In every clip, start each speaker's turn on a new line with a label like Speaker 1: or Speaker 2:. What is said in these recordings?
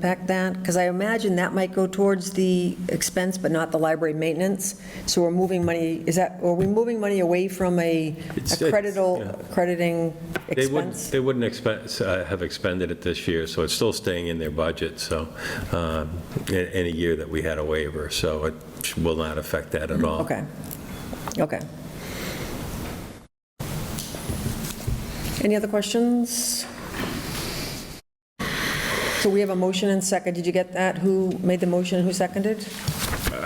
Speaker 1: impact that? Because I imagine that might go towards the expense, but not the library maintenance. So we're moving money, is that, are we moving money away from a a
Speaker 2: It's- it's- yeah.
Speaker 1: creditable, crediting
Speaker 2: They wouldn't,
Speaker 1: expense?
Speaker 2: they wouldn't expense, uh, have expended it this year, so it's still staying in their budget, so, um, in in a year that we had a waiver, so it will not affect that at all.
Speaker 1: Okay, okay. Any other questions? So we have a motion and second. Did you get that? Who made the motion, who seconded?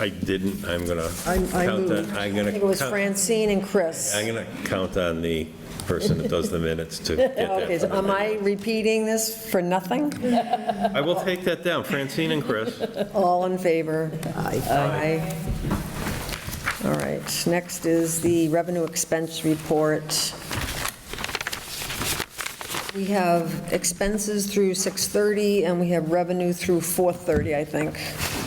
Speaker 2: I didn't, I'm going to
Speaker 3: I- I
Speaker 2: count
Speaker 3: moved.
Speaker 2: on, I'm
Speaker 1: I
Speaker 2: going
Speaker 1: think it was
Speaker 2: to,
Speaker 1: Francine and Chris.
Speaker 2: I'm going to count on the person that does the minutes to get
Speaker 1: Okay,
Speaker 2: that.
Speaker 1: so
Speaker 2: for
Speaker 1: am
Speaker 2: me.
Speaker 1: I repeating this for nothing?
Speaker 2: I will take that down, Francine and Chris.
Speaker 1: All in favor?
Speaker 3: Aye.
Speaker 1: Aye. All right, next is the revenue expense report. We have expenses through 6:30, and we have revenue through 4:30, I think.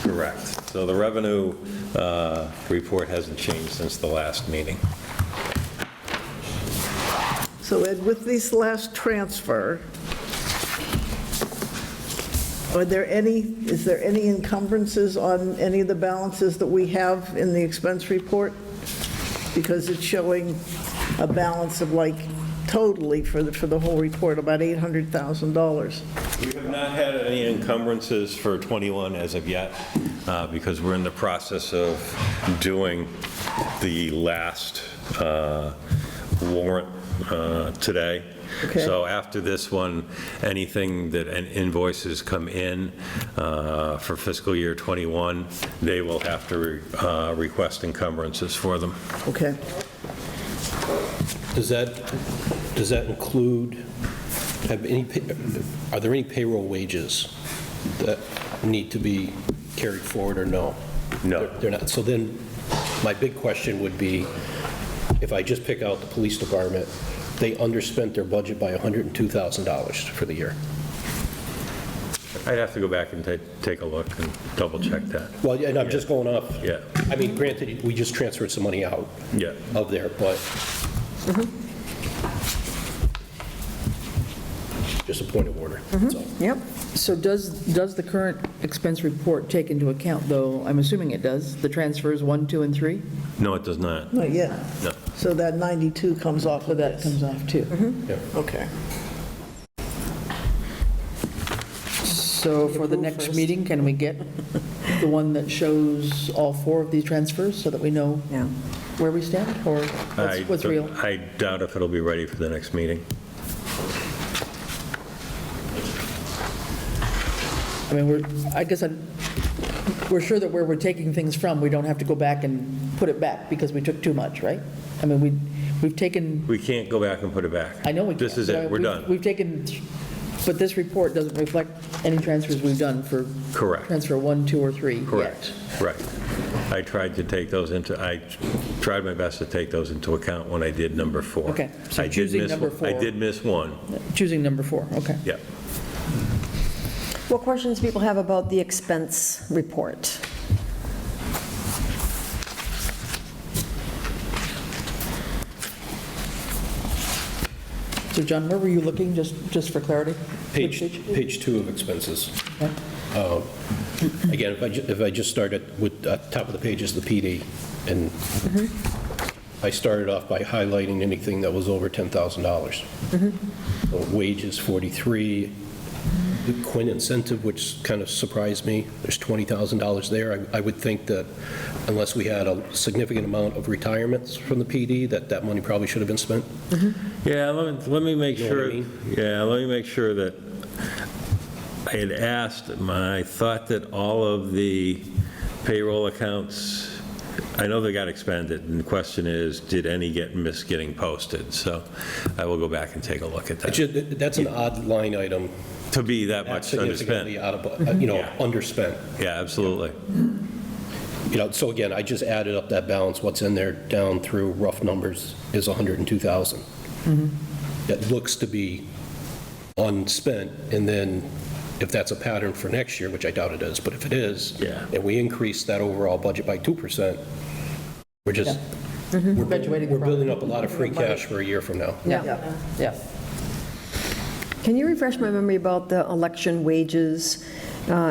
Speaker 2: Correct. So the revenue uh, report hasn't changed since the last meeting.
Speaker 3: So Ed, with this last transfer, are there any, is there any encumbrances on any of the balances that we have in the expense report? Because it's showing a balance of like totally for the, for the whole report, about $800,000.
Speaker 2: We have not had any encumbrances for '21 as of yet, uh, because we're in the process of doing the last uh, warrant uh, today.
Speaker 3: Okay.
Speaker 2: So after this one, anything that an- invoices come in uh, for fiscal year '21, they will have to uh, request encumbrances for them.
Speaker 3: Okay.
Speaker 4: Does that, does that include, have any, pa- are there any payroll wages that need to be carried forward or no?
Speaker 2: No.
Speaker 4: They're not, so then, my big question would be, if I just pick out the police department, they underspent their budget by $102,000 for the year.
Speaker 2: I'd have to go back and ta- take a look and double-check that.
Speaker 4: Well, and I'm just going off.
Speaker 2: Yeah.
Speaker 4: I mean, granted, we just transferred some money out
Speaker 2: Yeah.
Speaker 4: of there, but just a point of order, that's all.
Speaker 1: Yep.
Speaker 5: So does, does the current expense report take into account, though, I'm assuming it does, the transfers one, two, and three?
Speaker 2: No, it does not.
Speaker 3: Not yet.
Speaker 2: No.
Speaker 3: So that 92 comes off
Speaker 5: So
Speaker 3: of
Speaker 5: that
Speaker 3: this.
Speaker 5: comes off too.
Speaker 3: Okay.
Speaker 5: So for the next meeting, can we get the one that shows all four of these transfers so that we know
Speaker 1: Yeah.
Speaker 5: where we stand or
Speaker 2: I
Speaker 5: what's, what's
Speaker 2: don't-
Speaker 5: real?
Speaker 2: I doubt if it'll be ready for the next meeting.
Speaker 5: I mean, we're, I guess I'm, we're sure that where we're taking things from, we don't have to go back and put it back because we took too much, right? I mean, we, we've taken
Speaker 2: We can't go back and put it back.
Speaker 5: I know we can't.
Speaker 2: This is
Speaker 5: but I-
Speaker 2: it, we're
Speaker 5: we've-
Speaker 2: done.
Speaker 5: We've taken, but this report doesn't reflect any transfers we've done for.
Speaker 2: Correct.
Speaker 5: Transfer one, two, or three yet.
Speaker 2: Correct, right. I tried to take those into, I tried my best to take those into account when I did number four.
Speaker 5: Okay, so
Speaker 2: I did
Speaker 5: choosing
Speaker 2: miss
Speaker 5: number
Speaker 2: one- I
Speaker 5: four.
Speaker 2: did miss one,
Speaker 5: Choosing number four, okay.
Speaker 2: yeah.
Speaker 1: What questions people have about the expense report?
Speaker 5: So John, where were you looking, just, just for clarity?
Speaker 4: Page,
Speaker 5: Which page?
Speaker 4: page two of expenses.
Speaker 5: Okay.
Speaker 4: Uh, Again, if I, ju- if I just start at, with, uh, top of the page is the PD, and Mm-hmm. I started off by highlighting anything that was over $10,000. So Wages, 43, the Quinn incentive, which kind of surprised me, there's $20,000 there. I I would think that unless we had a significant amount of retirements from the PD, that that money probably should have been spent.
Speaker 2: Yeah, let me, let me make
Speaker 4: You know what I
Speaker 2: sure,
Speaker 4: mean?
Speaker 2: yeah, let me make sure that I had asked, my, I thought that all of the payroll accounts, I know they got expended, and the question is, did any get, miss getting posted? So I will go back and take a look at
Speaker 4: It's
Speaker 2: that.
Speaker 4: ju- That's an odd line item,
Speaker 2: To be that much underspent.
Speaker 4: significantly out of, uh, you know,
Speaker 2: Yeah.
Speaker 4: underspent.
Speaker 2: Yeah, absolutely.
Speaker 4: You know, so again, I just added up that balance, what's in there down through rough numbers is 102,000.
Speaker 2: Mm-hmm.
Speaker 4: That looks to be unspent, and then if that's a pattern for next year, which I doubt it is, but if it is,
Speaker 2: Yeah.
Speaker 4: and we increase that overall budget by 2%, we're just,
Speaker 2: Mm-hmm.
Speaker 4: we're
Speaker 5: Graduating
Speaker 4: we're
Speaker 5: from-
Speaker 4: building up a lot of free cash for a year from now.
Speaker 5: Yeah, yeah.
Speaker 1: Can you refresh my memory about the election wages? Uh,